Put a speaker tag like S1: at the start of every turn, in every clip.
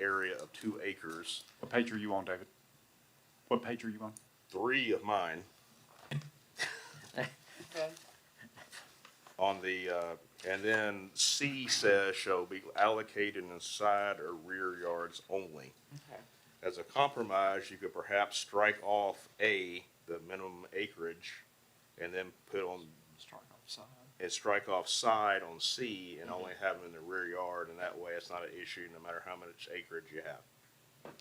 S1: area of two acres.
S2: What page are you on, David? What page are you on?
S1: Three of mine on the, uh, and then C says shall be allocated in side or rear yards only.
S3: Okay.
S1: As a compromise, you could perhaps strike off A, the minimum acreage, and then put on,
S2: Start off side. Mm-hmm.
S1: and strike off side on C and only have them in the rear yard, and that way it's not an issue no matter how much acreage you have.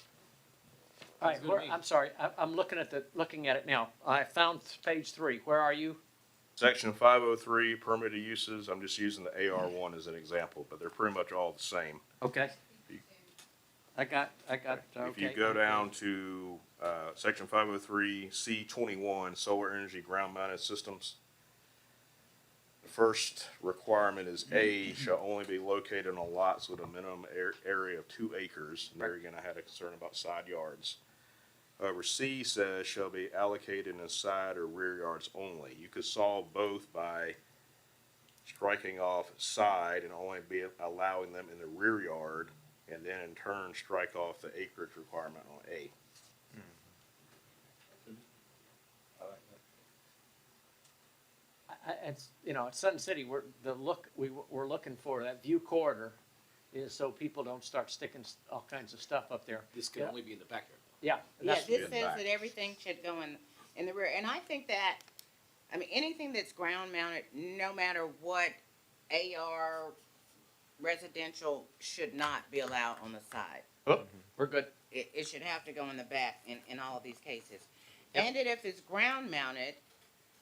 S4: All
S5: Sounds
S4: right,
S5: good to
S4: where,
S5: me.
S4: I'm sorry, I, I'm looking at the, looking at it now. I found page three. Where are you?
S1: Section five oh three permitted uses, I'm just using the AR one as an example, but they're pretty much all the same.
S4: Okay. I got, I got, okay.
S1: If you go down to, uh, section five oh three, C twenty-one, solar energy ground mounted systems. The first requirement is A shall only be located on lots with a minimum ar- area of two acres. And there again, I had a concern about side yards. However, C says shall be allocated in side or rear yards only. You could solve both by striking off side and only be allowing them in the rear yard and then in turn strike off the acreage requirement on A.
S4: I- I- It's, you know, at Sun City, we're, the look, we, we're looking for that view corridor is so people don't start sticking s- all kinds of stuff up there.
S5: This can
S4: Yeah.
S5: only be in the backyard.
S4: Yeah,
S3: Yeah,
S4: that's,
S1: good
S3: this says
S1: back.
S3: that everything should go in, in the rear, and I think that, I mean, anything that's ground mounted, no matter what AR residential should not be allowed on the side.
S4: Oh, we're good.
S3: It, it should have to go in the back in, in all of these cases.
S4: Yep.
S3: And that if it's ground mounted,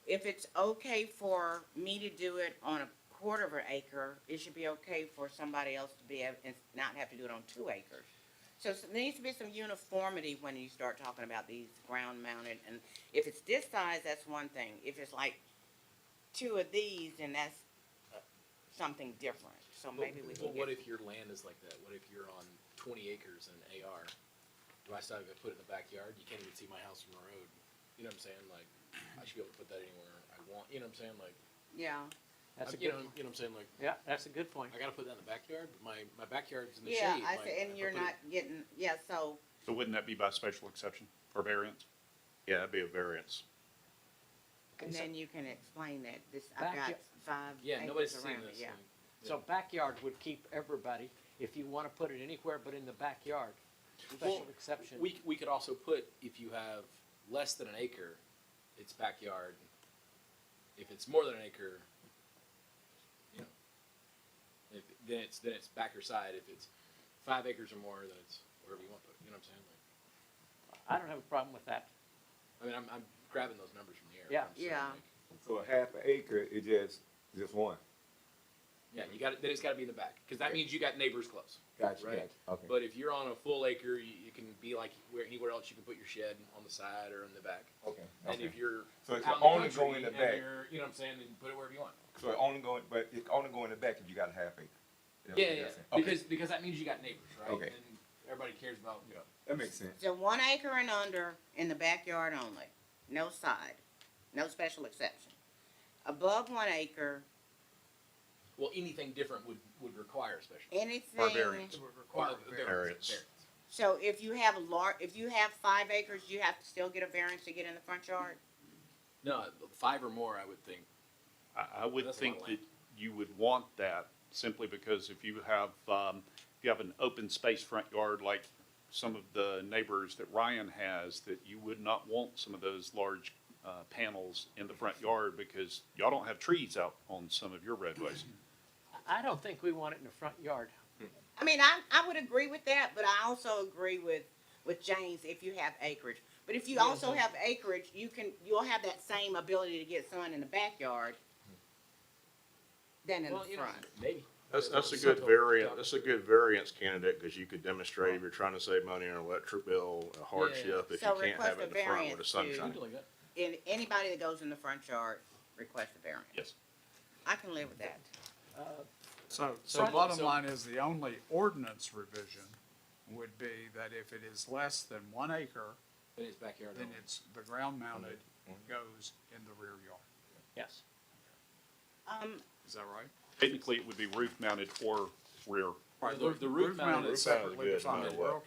S3: if it's okay for me to do it on a quarter of an acre, it should be okay for somebody else to be, able and not have to do it on two acres. So s- there needs to be some uniformity when you start talking about these ground mounted, and if it's this size, that's one thing. If it's like two of these, then that's uh, something different, so
S5: But-
S3: maybe we
S5: But
S3: can
S5: what
S3: get,
S5: if your land is like that? What if you're on twenty acres in an AR? Do I still have to put it in the backyard? You can't even see my house from the road. You know what I'm saying? Like, I should be able to put that anywhere I want. You know what I'm saying? Like,
S3: yeah.
S4: That's a
S5: you
S4: good,
S5: know, you know what I'm saying? Like,
S4: yeah, that's a good point.
S5: I gotta put that in the backyard, but my, my backyard's in the
S3: Yeah,
S5: shade.
S3: I
S5: like,
S3: see,
S5: if
S3: and you're
S5: put it-
S3: not getting, yeah, so,
S2: So wouldn't that be by special exception or variance?
S1: Yeah, that'd be a variance.
S3: and
S4: so-
S3: then you can explain that, this,
S4: Back
S3: I've got
S4: up.
S3: five
S5: Yeah, nobody's
S3: acres
S5: seeing
S3: around it,
S5: this.
S3: yeah.
S5: like,
S4: So backyard would keep everybody, if you wanna put it anywhere but in the backyard, special
S5: Well,
S4: exception.
S5: We, we could also put, if you have less than an acre, it's backyard. If it's more than an acre, you know, if, then it's, then it's back or side. If it's five acres or more, then it's wherever you want to put it, you know what I'm saying? Like,
S4: I don't have a problem with that.
S5: I mean, I'm, I'm grabbing those numbers from the air.
S4: Yeah.
S5: I'm saying,
S3: Yeah.
S5: like,
S6: So a half an acre is just, just one.
S5: Yeah, you got, then it's gotta be in the back, cause that means you got neighbors close.
S6: Gotcha,
S5: Right.
S6: gotcha. Okay.
S5: But if you're on a full acre, you, you can be like where, anywhere else you can put your shed on the side or in the back.
S6: Okay.
S5: And if you're
S6: So it's
S5: out in the
S6: only
S5: country
S6: going in the
S5: and
S6: back.
S5: you're- You know what I'm saying? Then put it wherever you want.
S6: So it only going, but it only going in the back if you got a half acre.
S5: Yeah,
S6: That's what
S5: yeah,
S6: you're
S5: yeah.
S6: saying. Okay,
S5: because because that means you got neighbors, right?
S6: Okay.
S5: And everybody cares about you know.
S6: That makes sense.
S3: So one acre and under in the backyard only, no side, no special exception. Above one acre,
S5: Well, anything different would would require a special.
S3: anything,
S1: variance.
S5: would require
S1: Variance.
S3: so if you have a lar, if you have five acres, you have to still get a variance to get in the front yard?
S5: No, five or more, I would think.
S2: I, I would
S5: That's a
S2: think
S5: lot of
S2: that
S5: land.
S2: you would want that simply because if you have, um, if you have an open space front yard like some of the neighbors that Ryan has, that you would not want some of those large, uh, panels in the front yard because y'all don't have trees out on some of your roadways.
S4: I don't think we want it in the front yard.
S3: I mean, I, I would agree with that, but I also agree with, with James if you have acreage. But if you also have acreage, you can, you'll have that same ability to get sun in the backyard than in the
S5: well, you know,
S3: front.
S5: maybe.
S1: That's, that's a good
S5: Something-
S1: variant, that's a good variance candidate, cause you could demonstrate if you're trying to save money on electric bill, a hardship, if you
S3: So
S1: can't have
S3: request
S1: it in the front
S3: a
S1: where the
S3: variance
S1: sun's
S3: to-
S1: shining.
S5: Something like that.
S3: And anybody that goes in the front yard requests a variance.
S2: Yes.
S3: I can live with that.
S7: So,
S5: So-
S7: so bottom
S5: so-
S7: line is the only ordinance revision would be that if it is less than one acre,
S5: In his backyard.
S7: then it's, the ground mounted
S2: Mm-hmm.
S7: goes in the rear yard.
S4: Yes.
S3: Um,
S7: Is that right?
S2: Technically, it would be roof mounted or rear Right,
S8: The- the roof mounted
S5: is
S2: separately
S5: good, no
S2: from the
S5: matter what.
S2: rural